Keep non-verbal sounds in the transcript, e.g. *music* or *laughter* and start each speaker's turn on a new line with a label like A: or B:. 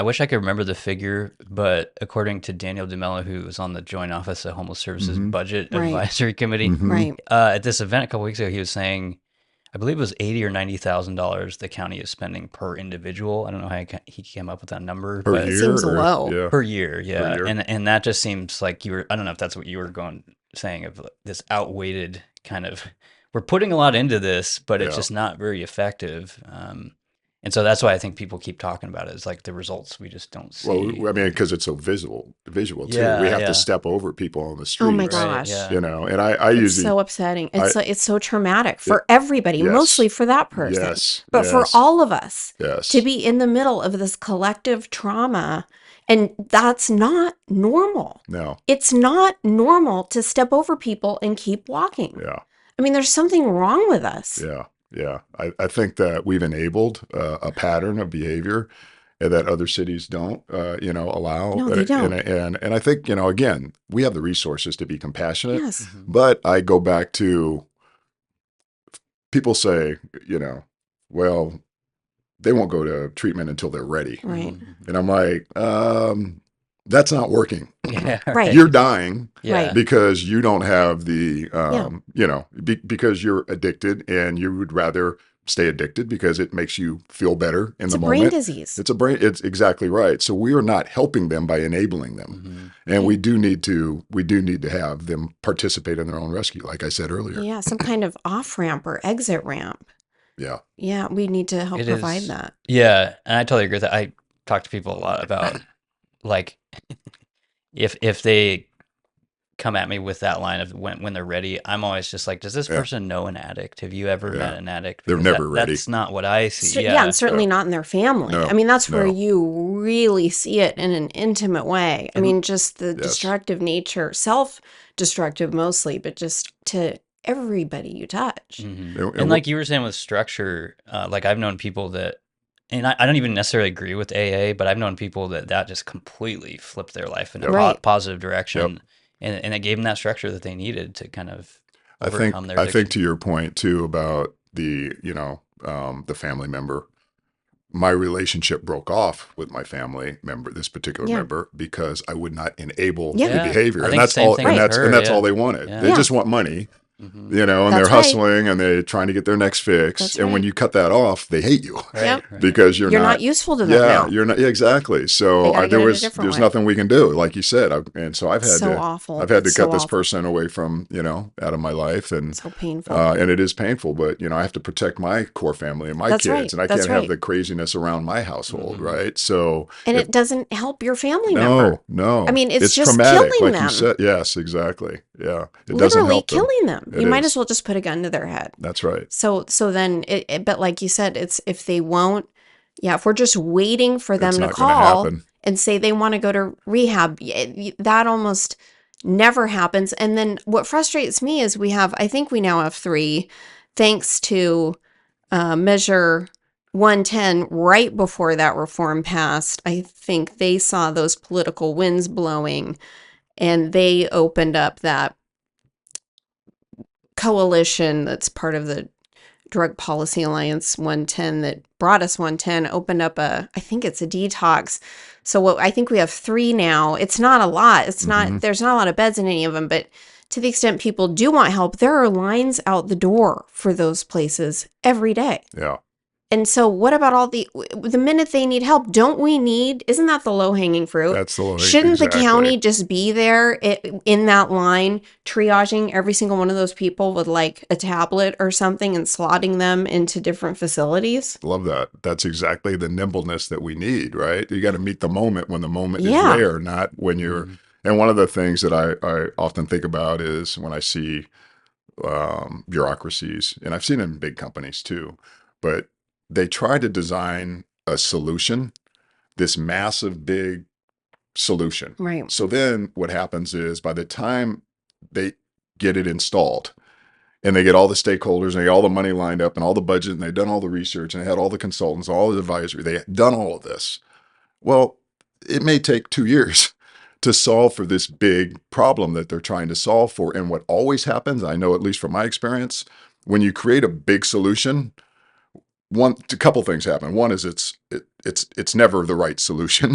A: I wish I could remember the figure, but according to Daniel DeMello, who was on the Joint Office of Homeless Services
B: Mhm.
A: Budget
C: Right.
A: Advisory Committee,
B: Mhm.
C: Right.
A: uh, at this event a couple weeks ago, he was saying, I believe it was eighty or ninety thousand dollars the county is spending per individual. I don't know how he ca- he came up with that number,
B: per
A: but
B: year.
C: seems
B: or-
C: low.
B: Yeah.
A: per year, yeah.
B: year.
A: And and that just seems like you were. I don't know if that's what you were going saying of like, this outweighted kind of. We're putting a lot into this, but it's
B: Yeah.
A: just not very effective. Um, and so that's why I think people keep talking about it. Is like the results we just don't see.
B: well, I mean, because it's so visible, visual too.
A: Yeah,
B: we have
A: yeah.
B: to step over people on the street.
C: Oh my
A: Right,
C: gosh.
A: yeah.
B: You know, and I, I
C: It's
B: usually
C: so upsetting. It's
B: I-
C: so, it's so traumatic for everybody,
B: Yes.
C: mostly for that person,
B: yes,
C: but for
B: yes,
C: all of us
B: yes,
C: to be in the middle of this collective trauma, and that's not normal.
B: no,
C: It's not normal to step over people and keep walking.
B: yeah.
C: I mean, there's something wrong with us.
B: Yeah, yeah. I, I think that we've enabled uh, a pattern of behavior that other cities don't, uh, you know, allow.
C: No, they
B: Uh,
C: don't.
B: And, and and I think you know, again, we have the resources to be compassionate,
C: Yes.
A: Mhm.
B: but I go back to people say, you know, well, they won't go to treatment until they're ready,
C: Right.
A: Mm-hmm.
B: and I'm like, um, that's not working.
A: *laughs* Yeah.
C: Right.
B: You're dying
A: Yeah.
B: because you don't have the um, you know be, because you're addicted and you would rather stay addicted because it makes you feel better in
C: It's
B: the
C: a brain
B: moment
C: disease.
B: it's a brain it's exactly right so we are not helping them by enabling them
A: Mhm.
C: Mm-hmm.
B: and we do need to we do need to have them participate in their own rescue like i said earlier
C: yeah, some kind of off ramp or exit ramp.
B: yeah
C: Yeah, we need to help
A: It
C: provide
A: is-
C: that.
A: Yeah, and I totally agree with that. I talk to people a lot about like if if they come at me with that line of when when they're ready, I'm always just like, does this
B: Yeah.
A: person know an addict? Have you ever
B: Yeah.
A: met an addict?
B: They're
A: Because
B: never ready.
A: That's not what I see.
C: Cer- yeah.
A: yeah.
C: and certainly not in their family.
B: No,
C: I mean, that's where
B: no.
C: you really see it in an intimate way. I
A: And-
C: mean, just the
B: Mm-hmm. Yes.
C: destructive nature, self destructive mostly, but just to everybody you touch.
A: Mhm.
B: and,
A: And like you were saying with structure, uh, like I've known people that, and I, I don't even necessarily agree with AA, but I've known people that that just completely flipped their life in a
C: Yep.
A: po-
C: Right.
A: positive direction, and and it gave them that structure that they needed to kind of
B: I think
A: overcome their
B: I think
A: addiction.
B: to your point too about the you know um, the family member. My relationship broke off with my family member, this particular
C: Yeah.
B: member, because I would not enable
C: Yeah.
A: Yeah.
B: the behavior,
A: I
B: and
A: think
B: that's
A: same
B: all.
A: thing
B: And
A: with
B: that's
A: her,
B: and that's
A: yeah.
B: all they wanted.
A: Yeah.
B: They
C: Yeah.
B: just want money,
A: Mhm.
B: you know, and
C: That's
B: they're
C: right.
B: hustling and they're trying to get their next fix.
C: That's
B: and when
C: right.
B: you cut that off, they hate you
A: Right,
C: Yep.
A: right.
B: because you're,
C: You're, not, useful to them
B: yeah,
C: now.
B: you're not yeah, exactly.
C: They
B: So
C: gotta
B: I,
C: get
B: there
C: it a
B: was
C: different
B: there's
C: way.
B: nothing we can do, like you said. I've, and so I've had
C: so
B: to
C: awful.
B: I've had to
C: Oh, So
B: cut this
C: awful.
B: person away from you know out of my life and
C: So painful.
B: uh, and it is painful. But you know, I have to protect my core family and my
C: That's
B: kids,
C: right.
B: and I
C: That's
B: can't
C: right.
B: have the craziness around my household,
A: Mhm.
B: right? So
C: and
B: if-
C: it doesn't help your family
B: no,
C: member.
B: no.
C: I mean, it's just killing
B: like
C: them.
B: you said. Yes, exactly. Yeah, it doesn't
C: Literally
B: help. them.
C: killing them.
B: It
C: You might
B: is.
C: as well just put a gun to their head.
B: That's right.
C: So so then it, it but like you said, it's if they won't yeah, if we're just waiting for them
B: it's
C: to
B: not gonna
C: call
B: happen.
C: and say they want to go to rehab, y- eh, y- that almost never happens. And then what frustrates me is we have, I think we now have three, thanks to uh, Measure 110, right before that reform passed. I think they saw those political winds blowing and they opened up that coalition that's part of the Drug Policy Alliance 110 that brought us 110 opened up a, I think it's a detox. So what I think we have three now. It's not a lot. It's not,
B: Mhm.
C: there's not a lot of beds in any of them, but to the extent people do want help, there are lines out the door for those places every day.
B: Yeah,
C: And so what about all the, the minute they need help, don't we need, isn't that the low hanging fruit?
B: that's the low-
C: Shouldn't
B: exactly.
C: the county just be there i- in that line, triaging every single one of those people with like a tablet or something and slotting them into different facilities?
B: Love that. That's exactly the nimbleness that we need, right? You got to meet the moment when the moment
C: Yeah.
B: is there, not when you're
A: Mhm.
B: And one of the things that I, I often think about is when I see um, bureaucracies, and I've seen it in big companies too, but they try to design a solution, this massive, big solution.
C: Right.
B: So then what happens is by the time they get it installed and they get all the stakeholders and they get all the money lined up and all the budget and they've done all the research and they had all the consultants, all the advisory, they had done all of this. Well, it may take two years *laughs* to solve for this big problem that they're trying to solve for. And what always happens, I know at least from my experience, when you create a big solution, *laughs* one a couple things happen. One is it's it, it's it's never the right solution.